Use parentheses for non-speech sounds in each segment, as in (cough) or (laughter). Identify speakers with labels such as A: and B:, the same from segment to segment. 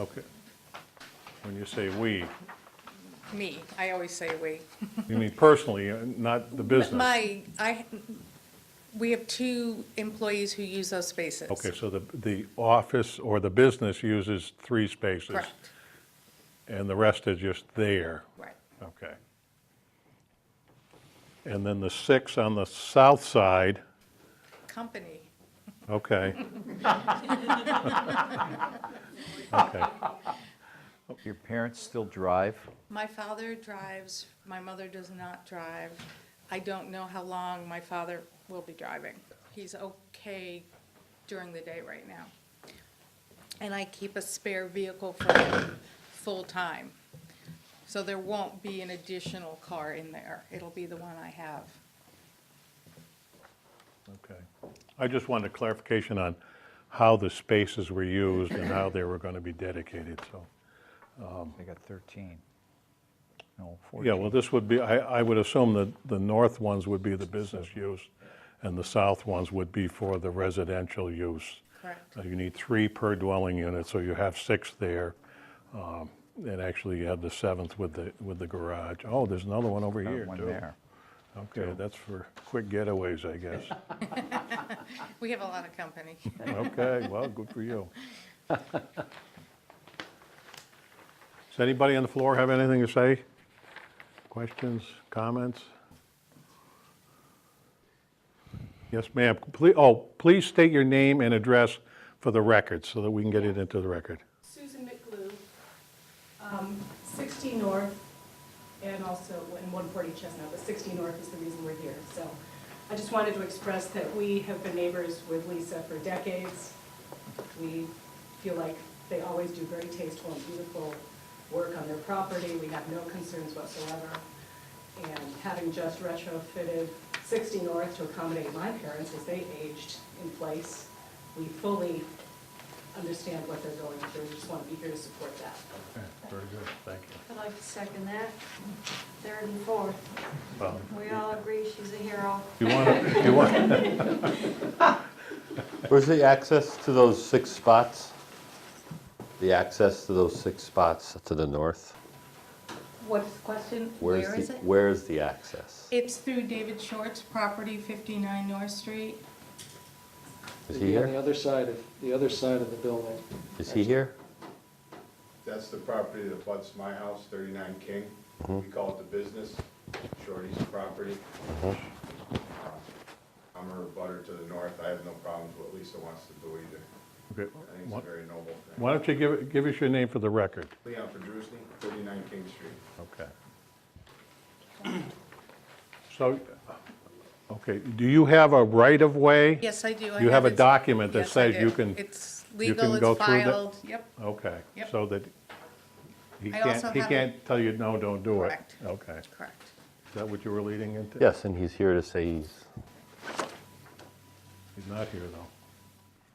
A: Okay. When you say "we,"
B: Me, I always say we.
A: you mean personally, uh, not the business?
B: My, I, we have two employees who use those spaces.
A: Okay, so the, the office or the business uses three spaces?
B: Correct,
A: And the rest is just there?
B: right.
A: Okay. And then the six on the south side,
B: Company,
A: okay. (laughs) Okay,
C: Your parents still drive?
B: my father drives, my mother does not drive. I don't know how long my father will be driving. He's okay during the day right now. And I keep a spare vehicle for him full-time. So there won't be an additional car in there. It'll be the one I have.
A: okay. I just wanted clarification on how the spaces were used and how they were going to be dedicated, so.
C: They got 13. No,
A: Yeah, well,
C: 14.
A: this would be, I, I would assume that the north ones would be the business use, and the south ones would be for the residential use.
B: Correct.
A: Uh, You need three per dwelling unit, so you have six there. um, And actually, you have the seventh with the, with the garage. Oh, there's another one over
C: Got
A: here,
C: One
A: too.
C: there.
A: Okay, that's for quick getaways, I guess.
B: We have a lot of company.
A: Okay, well, good for you. Does anybody on the floor have anything to say? Questions, comments? Yes, ma'am. Ple- Oh, please state your name and address for the record so that we can get it into the record.
D: Susan McGlue, um, 60 North, and also in 140 Chestnut, but 60 North is the reason we're here. So I just wanted to express that we have been neighbors with Lisa for decades. We feel like they always do very tasteful and beautiful work on their property. We have no concerns whatsoever. And having just retrofitted 60 North to accommodate my parents as they aged in place, we fully understand what they're going through. We just want to be here to support that.
A: Okay, Very good, thank you.
E: I'd like to second that. Third and fourth.
A: Well,
E: We all agree she's a hero.
A: You want to, you want, (laughs)
F: Where's the access to those six spots? The access to those six spots to the north?
B: What is the question?
F: Where's
B: Where
F: the-
B: is it?
F: Where's the access?
B: It's through David Short's property, 59 North Street.
F: Is
G: It'd
F: he
G: be On the
F: here?
G: other side of, the other side of the building.
F: Is he here?
H: That's the property that butts my house, 39 King. We call it the business, Shorty's property. I'm her butter to the north. I have no problems with what Lisa wants to do either.
A: okay,
H: I think
A: why-
H: it's a very noble thing.
A: why don't you give, give us your name for the record?
H: Leon Pedrusny, 39 King Street.
A: Okay. So, okay, do you have a right-of-way?
B: Yes, I do. I
A: You have a
B: it.
A: document that
B: Yes, I
A: says you
B: do.
A: can,
B: It's
A: you
B: legal,
A: can go
B: it's
A: through that?
B: filed, yep,
A: okay,
B: Yep.
A: so that he
B: I also
A: can't, he
B: have a-
A: can't tell you, no, don't do it?
B: Correct.
A: Okay, is
B: correct.
A: that what you were leading into?
F: Yes, and he's here to say he's,
A: He's not here, though.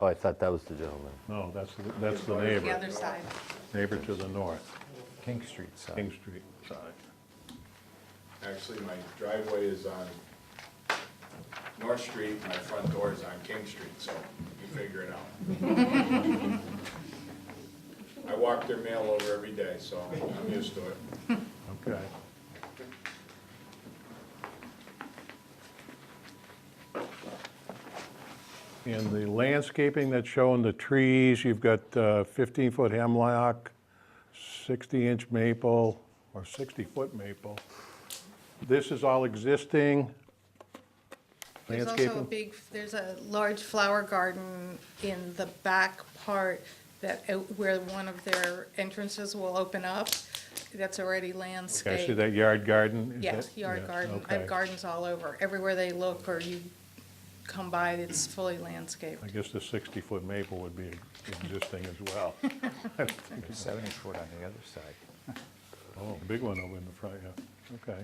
F: oh, I thought that was the gentleman.
A: No, that's, the- that's the
B: The
A: neighbor,
B: other side,
A: neighbor to the north,
C: King Street side.
A: King Street side.
H: Actually, my driveway is on North Street, my front door is on King Street, so you figure it out. I walk their mail over every day, so I'm used to it.
A: Okay. And the landscaping that's shown, the trees, you've got 15-foot hemlock, 60-inch maple, or 60-foot maple. This is all existing
B: there's also a
A: landscaping?
B: big, there's a large flower garden in the back part that, out- where one of their entrances will open up, that's already landscaped.
A: Okay, I see that yard garden? is
B: Yeah,
A: that-
B: yard
A: yeah,
B: garden, I
A: okay.
B: have gardens all over, everywhere they look or you come by, it's fully landscaped.
A: I guess the 60-foot maple would be existing as
B: (laughs)
A: well.
C: 70 foot on the other side.
A: Oh, big one over in the front, yeah, okay.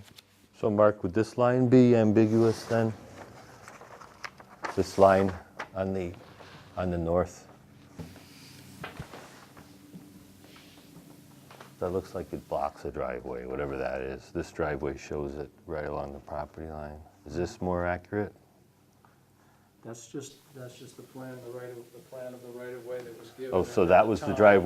F: So Mark, would this line be ambiguous then? This line on the, on the north? That looks like it blocks a driveway, whatever that is. This driveway shows it right along the property line. Is this more accurate?
G: That's just, that's just the plan, the right of, the plan of the right of way that was given.
F: Oh, so
G: at
F: that was the
G: time.
F: driveway